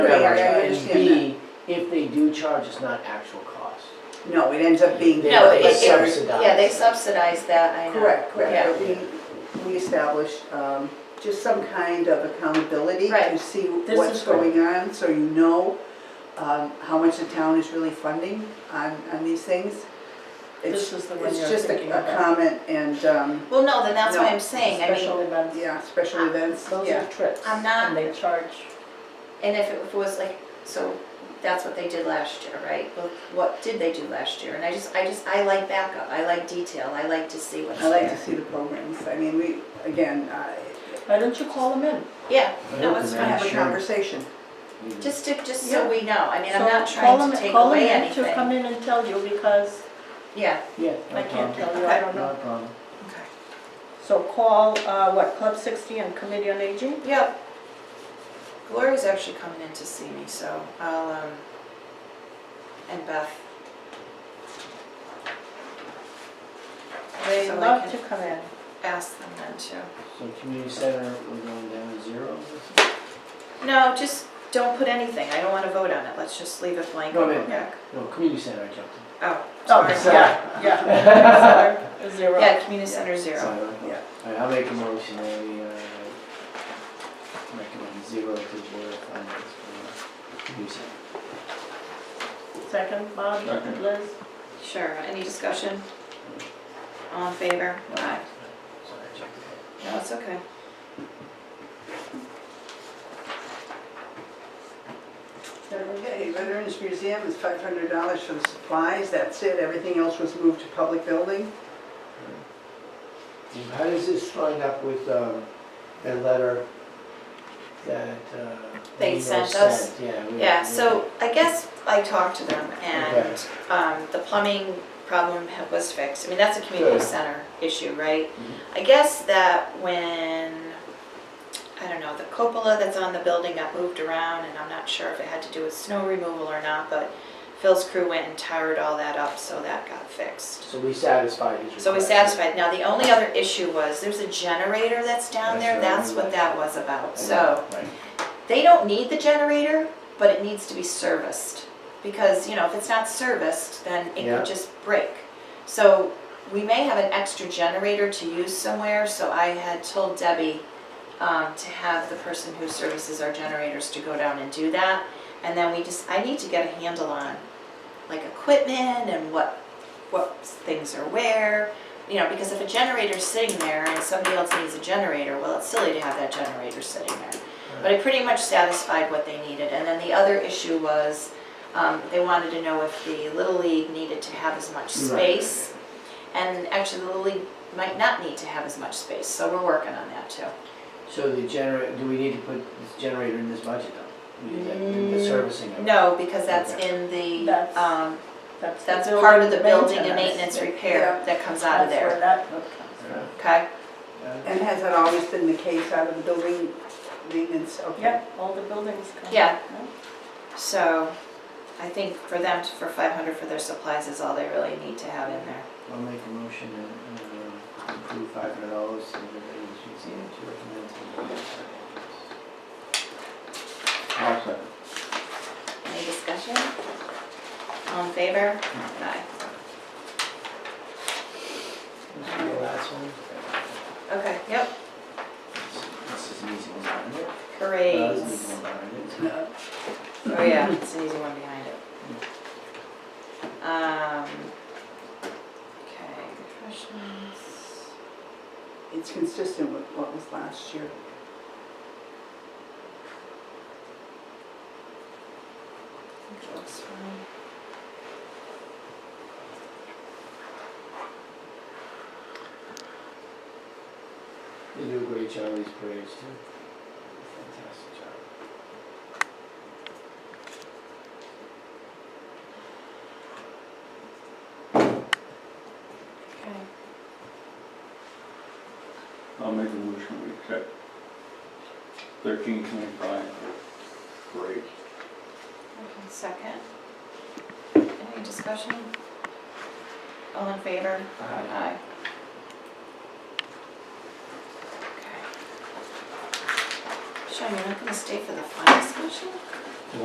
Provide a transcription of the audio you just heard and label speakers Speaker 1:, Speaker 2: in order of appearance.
Speaker 1: And
Speaker 2: understand that.
Speaker 1: B, if they do charge, it's not actual cost.
Speaker 2: No, it ends up being.
Speaker 1: They-
Speaker 3: No,
Speaker 1: they
Speaker 3: it- it-
Speaker 1: subsidize.
Speaker 3: Yeah, they subsidize that, I know.
Speaker 2: Correct,
Speaker 3: Yeah.
Speaker 2: correct, but we, we establish um, just some kind of accountability to
Speaker 3: Right.
Speaker 2: see
Speaker 4: This
Speaker 2: what's
Speaker 4: is right.
Speaker 2: going on, so you know um, how much the town is really funding on, on these things.
Speaker 4: This
Speaker 2: It's,
Speaker 4: is the one
Speaker 2: it's
Speaker 4: you're
Speaker 2: just
Speaker 4: thinking
Speaker 2: a- a
Speaker 4: about.
Speaker 2: comment and, um,
Speaker 3: Well, no, then that's
Speaker 2: No,
Speaker 3: why I'm saying, I
Speaker 4: Special
Speaker 3: mean,
Speaker 4: events.
Speaker 2: yeah, special events,
Speaker 4: Those are
Speaker 2: yeah.
Speaker 4: trips.
Speaker 3: I'm not-
Speaker 4: And they charge,
Speaker 3: and if it was like, so that's what they did last year, right? Well, What did they do last year? And I just, I just, I like backup, I like detail, I like to see what's
Speaker 2: I like to
Speaker 3: there.
Speaker 2: see the programs, I mean, we, again, I-
Speaker 4: why don't you call them in?
Speaker 3: Yeah,
Speaker 1: I
Speaker 3: no,
Speaker 1: hope
Speaker 3: it's
Speaker 1: the
Speaker 3: fine.
Speaker 2: have a
Speaker 1: Sure.
Speaker 2: conversation.
Speaker 3: Just to, just so
Speaker 4: Yeah.
Speaker 3: we know, I mean, I'm
Speaker 4: So
Speaker 3: not
Speaker 4: call
Speaker 3: trying to
Speaker 4: them-
Speaker 3: take
Speaker 4: call them
Speaker 3: away
Speaker 4: in To come
Speaker 3: anything.
Speaker 4: in and tell you because
Speaker 3: Yeah,
Speaker 1: Yeah. no
Speaker 4: I can't
Speaker 1: problem.
Speaker 4: tell you, I don't
Speaker 1: Not a
Speaker 4: know.
Speaker 1: problem.
Speaker 4: So call, uh, what, Club 60 and Committee on Aging?
Speaker 3: yeah. Gloria's actually coming in to see me, so I'll, um, and Beth.
Speaker 4: They
Speaker 3: So I
Speaker 4: love to
Speaker 3: can-
Speaker 4: come in.
Speaker 3: Ask them then too.
Speaker 1: So community center, we're going down to zero?
Speaker 3: No, just don't put anything, I don't wanna vote on it, let's just leave it blank.
Speaker 1: No,
Speaker 3: and
Speaker 1: no.
Speaker 3: go back.
Speaker 1: No, community center, I jumped in.
Speaker 3: Oh,
Speaker 4: Oh,
Speaker 3: sorry.
Speaker 4: yeah, yeah.
Speaker 1: Sorry.
Speaker 4: Sorry, Zero.
Speaker 3: Yeah, community center zero.
Speaker 1: All right, I'll make a motion, that we, uh, recommend zero to board of finance for community center.
Speaker 4: Second, Bob,
Speaker 1: Second.
Speaker 4: Liz?
Speaker 3: Sure, any discussion? All in favor? Aye.
Speaker 1: Sorry, I jumped ahead.
Speaker 3: No, it's okay.
Speaker 2: Okay, Veterans Museum is five hundred dollars for the supplies, that's it, everything else was moved to public building.
Speaker 5: And How does this line up with um, the letter that? uh,
Speaker 3: They
Speaker 1: Nino
Speaker 3: sent us?
Speaker 1: Yeah. we-
Speaker 3: Yeah,
Speaker 1: we-
Speaker 3: so I guess I talked to them and
Speaker 5: Okay.
Speaker 3: um, the plumbing problem ha- was fixed. I mean, that's a community
Speaker 5: Good.
Speaker 3: center issue, right? I guess that when, I don't know, the cupola that's on the building got moved around and I'm not sure if it had to do with snow removal or not, but Phil's crew went and tired all that up, so that got fixed.
Speaker 1: So we satisfied his request.
Speaker 3: So we satisfied. Now, the only other issue was there's a generator that's down
Speaker 1: That's
Speaker 3: there.
Speaker 1: right.
Speaker 3: That's what that was about. So.
Speaker 1: Right.
Speaker 3: They don't need the generator, but it needs to be serviced. Because, you know, if it's not serviced, then it
Speaker 5: Yeah.
Speaker 3: could just break. So we may have an extra generator to use somewhere, so I had told Debbie um, to have the person who services our generators to go down and do that. And then we just, I need to get a handle on, like, equipment and what, what things are where. You know, because if a generator's sitting there and somebody else needs a generator, well, it's silly to have that generator sitting there. But I pretty much satisfied what they needed. And then the other issue was, um, they wanted to know if the Little League needed to have as much
Speaker 1: Right.
Speaker 3: space. And actually, the Little League might not need to have as much space, so we're working on that too.
Speaker 1: So the generator, do we need to put this generator in this budget though? We need that- The
Speaker 3: Mm,
Speaker 1: servicing of it?
Speaker 3: No, because that's
Speaker 1: Okay.
Speaker 3: in the,
Speaker 4: That's-
Speaker 3: um,
Speaker 4: That's the
Speaker 3: that's part of the building and
Speaker 4: maintenance.
Speaker 3: maintenance repair
Speaker 2: Yeah.
Speaker 3: that comes out of
Speaker 4: That's where
Speaker 3: there,
Speaker 4: that book comes from.
Speaker 1: Yeah.
Speaker 3: okay?
Speaker 1: Yeah.
Speaker 2: And has that always been the case out of the building maintenance? Okay.
Speaker 4: Yeah, all the buildings come.
Speaker 3: Yeah. So I think for them, for five hundred for their supplies is all they really need to have in there.
Speaker 1: I'll make a motion to uh, approve five hundred dollars to the Veterans Museum to recommend to the board of finance.
Speaker 3: Any discussion? All in favor? Aye.
Speaker 1: This will be the last one.
Speaker 3: Okay, yep.
Speaker 1: This is an easy one, isn't it? Well, this is
Speaker 3: Parades.
Speaker 1: an easy one, isn't it?
Speaker 2: No,
Speaker 3: Oh, yeah, it's an easy one behind it. Um, okay, refreshments.
Speaker 2: It's consistent with what was last year.
Speaker 3: Which looks fine.
Speaker 1: They do a great job with these parades too. Fantastic job.
Speaker 3: Okay.
Speaker 6: I'll make a motion, we accept thirteen twenty-five for parade.
Speaker 3: Okay, Second. Any discussion? All in favor? Aye. Okay. Sean, you're not gonna stay for the final discussion?